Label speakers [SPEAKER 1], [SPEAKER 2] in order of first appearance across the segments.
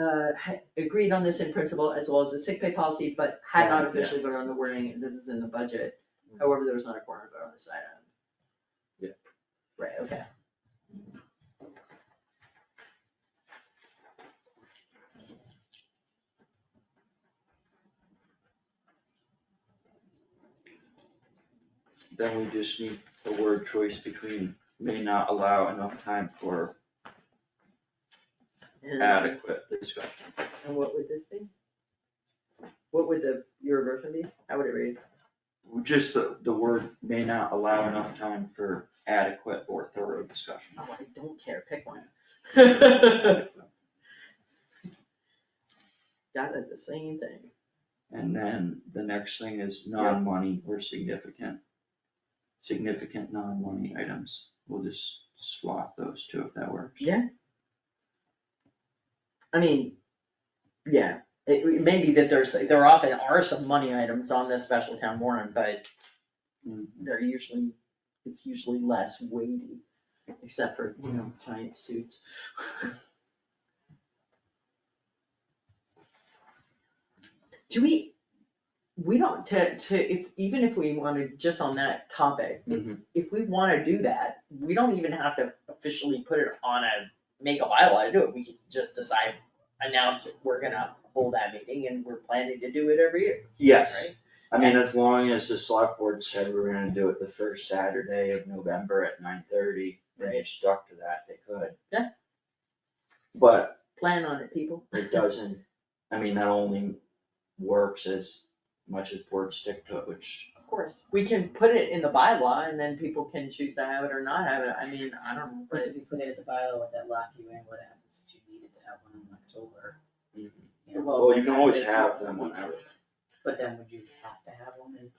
[SPEAKER 1] uh, ha- agreed on this in principle as well as the sick pay policy, but had not
[SPEAKER 2] Right, yeah. Mm.
[SPEAKER 1] officially voted on the wording, this is in the budget. However, there was not a quorum vote on this item.
[SPEAKER 2] Yeah.
[SPEAKER 1] Right, okay.
[SPEAKER 2] Then we just need a word choice between may not allow enough time for
[SPEAKER 1] And-
[SPEAKER 2] adequate discussion.
[SPEAKER 1] And what would this be? What would the, your version be? How would it read?
[SPEAKER 2] Just the, the word may not allow enough time for adequate or thorough discussion.
[SPEAKER 1] Oh, I don't care, pick one. Got it, the same thing.
[SPEAKER 2] And then the next thing is non-money or significant, significant non-money items. We'll just swap those two if that works.
[SPEAKER 1] I mean, yeah, it it may be that there's, there often are some money items on this special town warrant, but
[SPEAKER 2] Mm,
[SPEAKER 1] they're usually, it's usually less weighty, except for, you know, giant suits. Do we, we don't, to, to, if, even if we wanted, just on that topic, if,
[SPEAKER 2] Mhm.
[SPEAKER 1] if we wanna do that, we don't even have to officially put it on a, make a bylaw to do it, we could just decide, announce that we're gonna hold that meeting and we're planning to do it every year,
[SPEAKER 2] Yes,
[SPEAKER 1] right?
[SPEAKER 2] I mean, as long as the select board said we're gonna do it the first Saturday of November at nine thirty, and they stuck to that, they could.
[SPEAKER 1] Yeah.
[SPEAKER 2] But
[SPEAKER 1] Plan on it, people.
[SPEAKER 2] it doesn't, I mean, that only works as much as boards stick to it, which,
[SPEAKER 1] Of course, we can put it in the bylaw and then people can choose to have it or not have it, I mean, I don't know,
[SPEAKER 3] Or
[SPEAKER 1] but
[SPEAKER 3] if you put it at the bylaw, would that lock you in, what happens if you needed to have one in October?
[SPEAKER 2] Mhm.
[SPEAKER 3] You know,
[SPEAKER 2] well, you can always have them whenever.
[SPEAKER 3] But then would you have to have one in?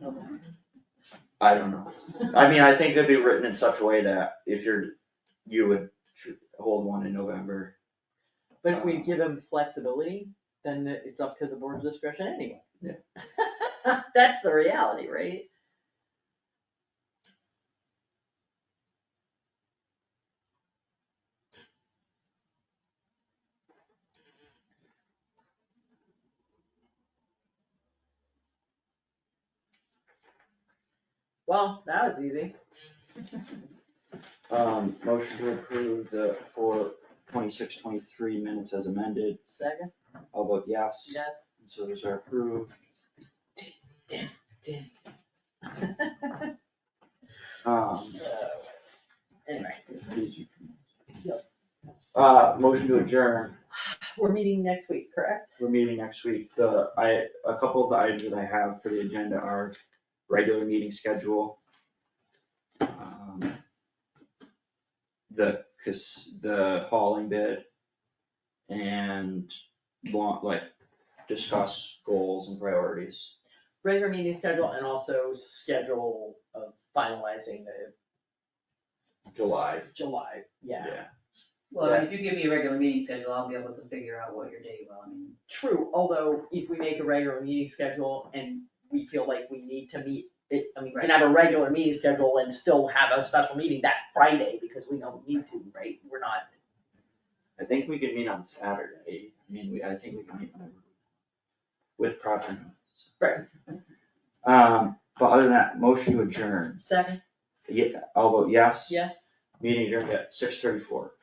[SPEAKER 3] November?
[SPEAKER 2] I don't know. I mean, I think it'd be written in such a way that if you're, you would tr- hold one in November.
[SPEAKER 1] but if we give them flexibility, then it's up to the board's discretion anyway.
[SPEAKER 2] Yeah.
[SPEAKER 1] That's the reality, right? Well, that was easy.
[SPEAKER 2] Um, motion to approve the four twenty-six, twenty-three minutes as amended.
[SPEAKER 1] Second,
[SPEAKER 2] I'll vote yes.
[SPEAKER 1] yes.
[SPEAKER 2] So those are approved. Um,
[SPEAKER 1] Anyway,
[SPEAKER 2] these you can- Uh, motion to adjourn.
[SPEAKER 1] we're meeting next week, correct?
[SPEAKER 2] We're meeting next week. The, I, a couple of the items that I have for the agenda are regular meeting schedule. um, The, cause the hauling bid. And want, like, discuss goals and priorities.
[SPEAKER 1] Regular meeting schedule and also schedule of finalizing the
[SPEAKER 2] July,
[SPEAKER 1] July, yeah.
[SPEAKER 2] yeah.
[SPEAKER 3] Well, I mean, if you give me a regular meeting schedule, I'll be able to figure out what your day will, I mean.
[SPEAKER 1] True, although if we make a regular meeting schedule and we feel like we need to meet, it, I mean, we can have a regular meeting schedule and still have a special meeting that Friday because we don't need to, right? We're not,
[SPEAKER 2] I think we could meet on Saturday, I mean, we, I think we can meet whenever. With proper notice.
[SPEAKER 1] Right.
[SPEAKER 2] Um, but other than that, motion to adjourn,
[SPEAKER 1] second,
[SPEAKER 2] yeah, I'll vote yes.
[SPEAKER 1] yes?
[SPEAKER 2] Meeting adjourned at six thirty-four.